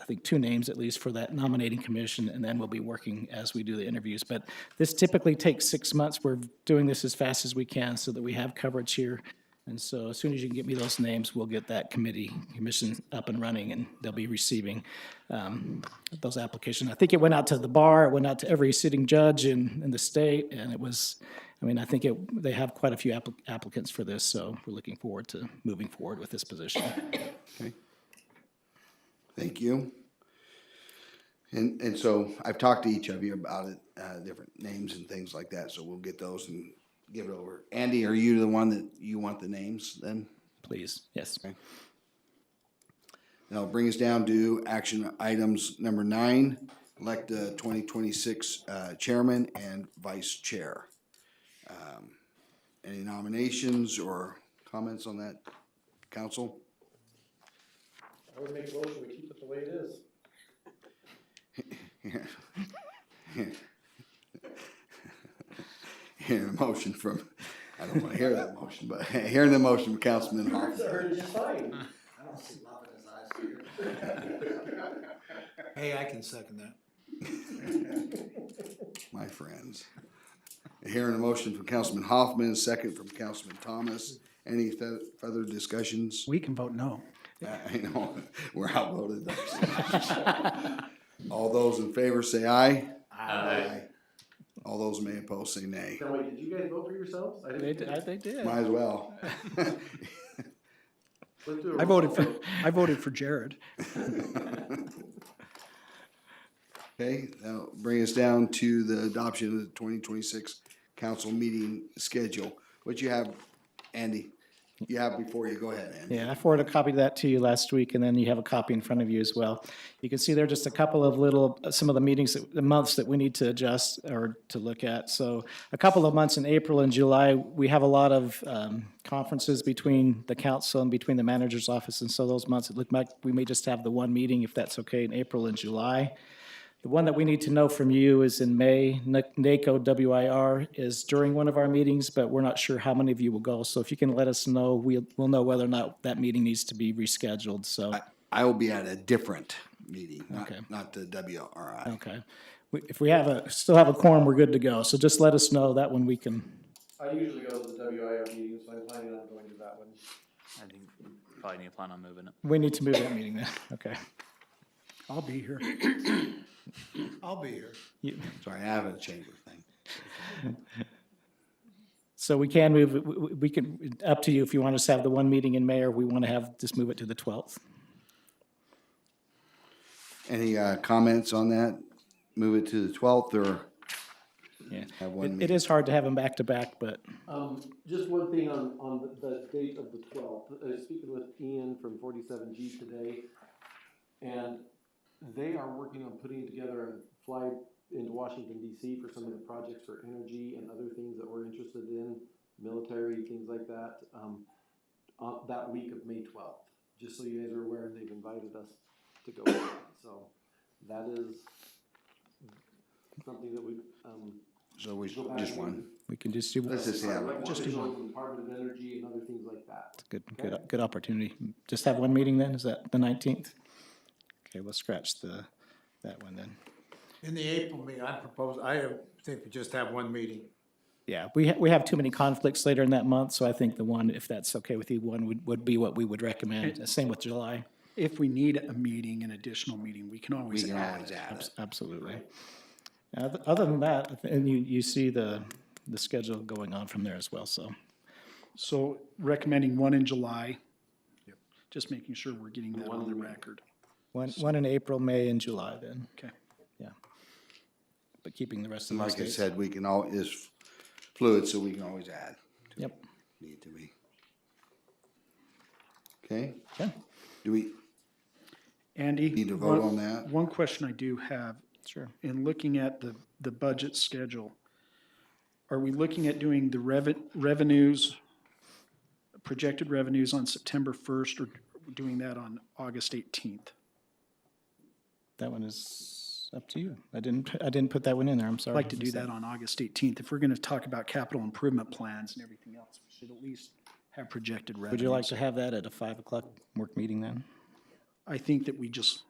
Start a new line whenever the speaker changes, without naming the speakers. I think, two names at least for that nominating commission, and then we'll be working as we do the interviews. But this typically takes six months. We're doing this as fast as we can so that we have coverage here. And so as soon as you can get me those names, we'll get that committee, commission up and running, and they'll be receiving um, those applications. I think it went out to the bar, it went out to every sitting judge in, in the state, and it was, I mean, I think it, they have quite a few appli- applicants for this, so we're looking forward to moving forward with this position.
Thank you. And, and so I've talked to each of you about it, uh, different names and things like that, so we'll get those and give it over. Andy, are you the one that, you want the names then?
Please, yes.
That'll bring us down to action items number nine, elect the twenty twenty-six, uh, chairman and vice chair. Um, Any nominations or comments on that, council?
I would make a motion, we keep it the way it is.
Hearing a motion from, I don't wanna hear that motion, but hearing the motion from Councilman
It's a
Hopper.
heritage sign.
I don't see love in his eyes here. Hey, I can second that.
my friends. Hearing a motion from Councilman Hoffman, second from Councilman Thomas. Any fe- further discussions?
We can vote no.
I know, we're outvoted. All those in favor say aye. Aye. All those may oppose say nay.
Now, wait, did you guys vote for yourselves? I
They,
didn't.
d- I- they did.
Might as well.
Let's do a
I
roll
voted
call
for,
vote.
I voted for Jared.
Okay, that'll bring us down to the adoption of the twenty twenty-six council meeting schedule. What you have, Andy? You have before you, go ahead, Andy.
Yeah, I forwarded a copy of that to you last week, and then you have a copy in front of you as well. You can see there are just a couple of little, uh, some of the meetings, that- the months that we need to adjust or to look at. So a couple of months in April and July, we have a lot of um, conferences between the council and between the manager's office. And so those months, it looked like we may just have the one meeting, if that's okay, in April and July. The one that we need to know from you is in May, N- NACO WIR is during one of our meetings, but we're not sure how many of you will go. So if you can let us know, we'll, we'll know whether or not that meeting needs to be rescheduled, so,
I will be at a different meeting, not,
Okay. Oh.
not the WRI.
okay. We- If we have a, still have a quorum, we're good to go, so just let us know, that one we can,
I usually go to the WIR meetings, so I'm planning on going to that one.
I think we probably need to plan on moving it.
we need to move that meeting then, okay.
I'll be here. I'll be here.
You-
Sorry, I have a chamber thing.
So we can move, we- we we can, up to you if you want us to have the one meeting in May, or we want to have, just move it to the 12th.
Any, uh, comments on that? Move it to the twelfth or
Yeah.
have one
It it
meeting?
is hard to have them back to back, but.
Um, just one thing on, on the- the date of the twelfth, uh, speaking with Ian from forty-seven G today, and they are working on putting together a fly into Washington DC for some of the projects for energy and other things that we're interested in, military, things like that, um, uh, that week of May twelfth. Just so you guys are aware, they've invited us to go, so that is something that we, um.
So we,
go back
just
and-
one.
We can just do,
Let's just have
Like
one.
Just do
digital
one.
and Department of Energy and other things like that.
good, good, good opportunity. Just have one meeting then, is that the nineteenth? Okay, we'll scratch the, that one then.
In the April meeting, I propose, I think we just have one meeting.
Yeah, we, ha- we have too many conflicts later in that month, so I think the one, if that's okay with you, one would, would be what we would recommend. Same with July,
If we need a meeting, an additional meeting, we can
We
always
can
add
always
it.
add
Abs-
it.
absolutely. Oth- Other than that, and you, you see the, the schedule going on from there as well, so.
So recommending one in July. Just making sure we're getting that on the record.
One, one in April, May, and July then,
Okay.
yeah. But keeping the rest of the
Like I
dates.
said, we can all, it's fluid, so we can always add,
Yep,
need to be. Okay,
yeah,
do we
Andy?
need to vote
one-
on that?
One question I do have
sure.
in looking at the, the budget schedule, are we looking at doing the reven, revenues, projected revenues on September first or doing that on August eighteenth?
That one is up to you. I didn't, I didn't put that one in there, I'm sorry.
I'd like to do that on August eighteenth. If we're gonna talk about capital improvement plans and everything else, we should at least have projected revenues.
Would you like to have that at a five o'clock work meeting then?
I think that we just